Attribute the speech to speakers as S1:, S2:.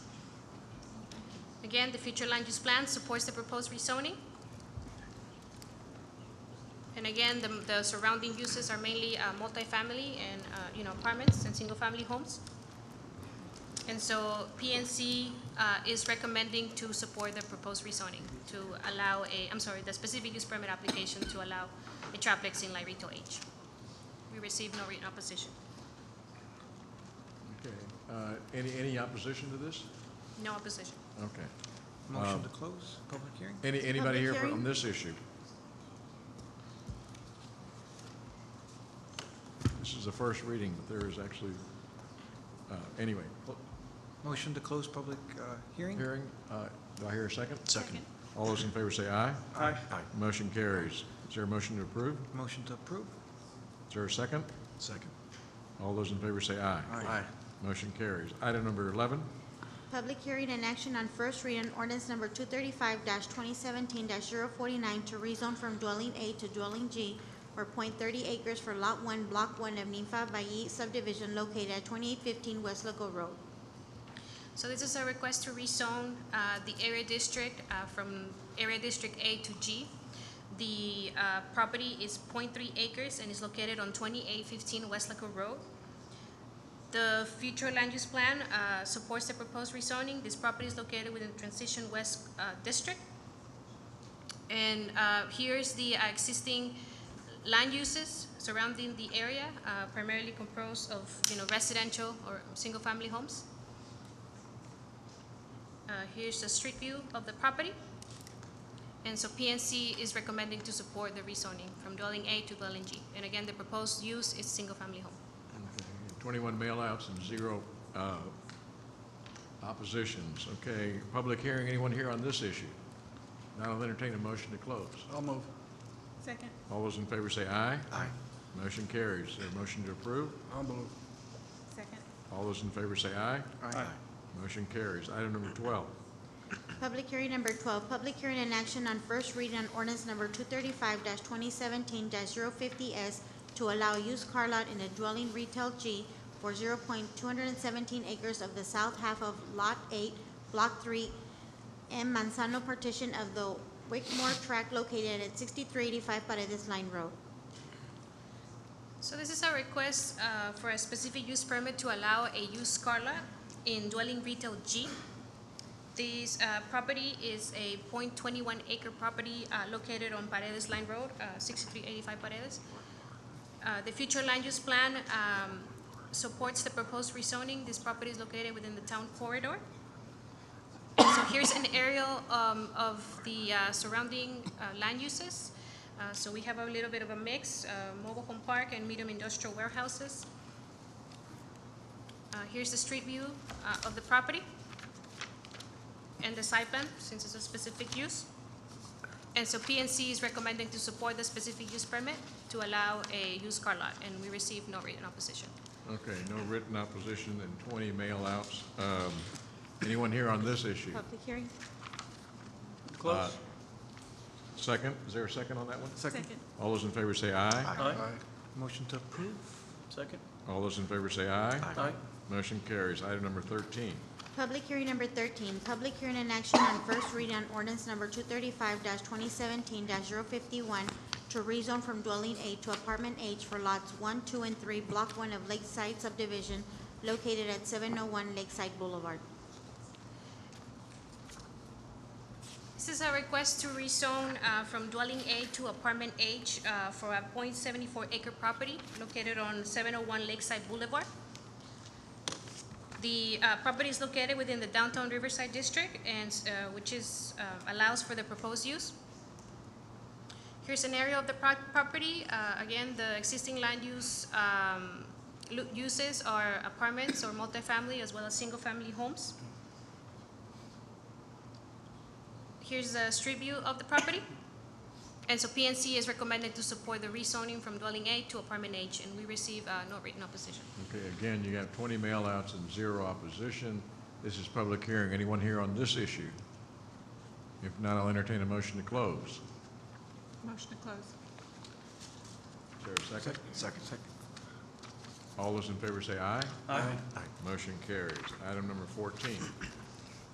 S1: Again, the future land use plan supports the proposed rezoning. And again, the, the surrounding uses are mainly uh, multifamily and, uh, you know, apartments and single-family homes. And so PNC uh, is recommending to support the proposed rezoning to allow a, I'm sorry, the specific use permit application to allow a triplex in Lyrito H. We received no written opposition.
S2: Okay. Uh, Any, any opposition to this?
S1: No opposition.
S2: Okay.
S3: Motion to close public hearing?
S2: Any, anybody here
S4: Public
S2: on
S4: hearing?
S2: this issue? This is the first reading, but there is actually, uh, anyway, pl-
S3: Motion to close public uh, hearing?
S2: hearing, uh, do I hear a second?
S1: Second.
S2: All those in favor say aye.
S3: Aye.
S2: Motion carries. Is there a motion to approve?
S3: Motion to approve?
S2: Is there a second?
S5: Second.
S2: All those in favor say aye.
S5: Aye.
S2: Motion carries. Item number 11,
S4: Public hearing and action on first reading ordinance number two thirty-five twenty seventeen 49 to rezone from dwelling A to dwelling G or 0.30 acres for lot one, block one of Ninfa Bayi subdivision located at twenty-eight fifteen West Loco Road.
S1: So this is a request to rezone uh, the area district uh, from area district A to G. The uh, property is 0.3 acres and is located on 2815 West Laco Road. The future land use plan uh, supports the proposed rezoning. This property is located within Transition West uh, District. And uh, here's the uh, existing land uses surrounding the area, uh, primarily composed of, you know, residential or single-family homes. Uh, Here's the street view of the property. And so PNC is recommending to support the rezoning from dwelling A to dwelling G. And again, the proposed use is single-family home.
S2: 21 mailouts and zero uh, oppositions. Okay, public hearing, anyone here on this issue? Now I'll entertain a motion to close.
S5: I'll move.
S1: Second.
S2: All those in favor say aye.
S5: Aye.
S2: Motion carries. Is there a motion to approve?
S5: I'll move.
S1: Second.
S2: All those in favor say aye. Motion carries. Item number 12,
S4: Public hearing number twelve, public hearing and action on first reading on ordinance number two thirty-five twenty seventeen 50 S to allow used car lot in a dwelling retail G for zero point two hundred and seventeen acres of the south half of Lot Eight, Block Three, and Manzano partition of the Wickmore tract located at sixty-three eighty-five Paredes Line Road.
S1: So this is a request uh, for a specific use permit to allow a used car lot in dwelling retail G. This uh, property is a .21 acre property uh, located on Paredes Line Road, uh, 6385 Paredes. Uh, The future land use plan um, supports the proposed rezoning. This property is located within the town corridor. So here's an aerial um, of the uh, surrounding uh, land uses. Uh, So we have a little bit of a mix, uh, mobile home park and medium industrial warehouses. Uh, Here's the street view uh, of the property and the site plan, since it's a specific use. And so PNC is recommending to support the specific use permit to allow a used car lot, and we received no written opposition.
S2: okay, no written opposition and 20 mailouts. Um, Anyone here on this issue?
S4: Public hearing?
S2: Close. Second, is there a second on that one?
S3: Second?
S2: All those in favor say aye.
S5: Aye.
S3: Motion to approve?
S6: Second?
S2: All those in favor say aye.
S6: Aye.
S2: Motion carries. Item number 13.
S4: Public hearing number thirteen, public hearing and action on first reading on ordinance number two thirty-five twenty seventeen 51 to rezone from dwelling A to apartment H for lots one, two, and three, block one of Lakeside subdivision located at seven oh one Lakeside Boulevard.
S1: This is a request to rezone uh, from dwelling A to apartment H uh, for a .74 acre property located on 701 Lakeside Boulevard. The uh, property is located within the downtown Riverside District and, uh, which is, uh, allows for the proposed use. Here's an area of the pro- property. Uh, Again, the existing land use, um, lu- uses are apartments or multifamily as well as single-family homes. Here's a street view of the property. And so PNC is recommended to support the rezoning from dwelling A to apartment H, and we receive uh, no written opposition.
S2: Okay, again, you have 20 mailouts and zero opposition. This is public hearing. Anyone here on this issue? If not, I'll entertain a motion to close.
S1: Motion to close.
S2: Is there a second?
S5: Second.
S2: All those in favor say aye.
S6: Aye.
S2: Motion carries. Item number 14.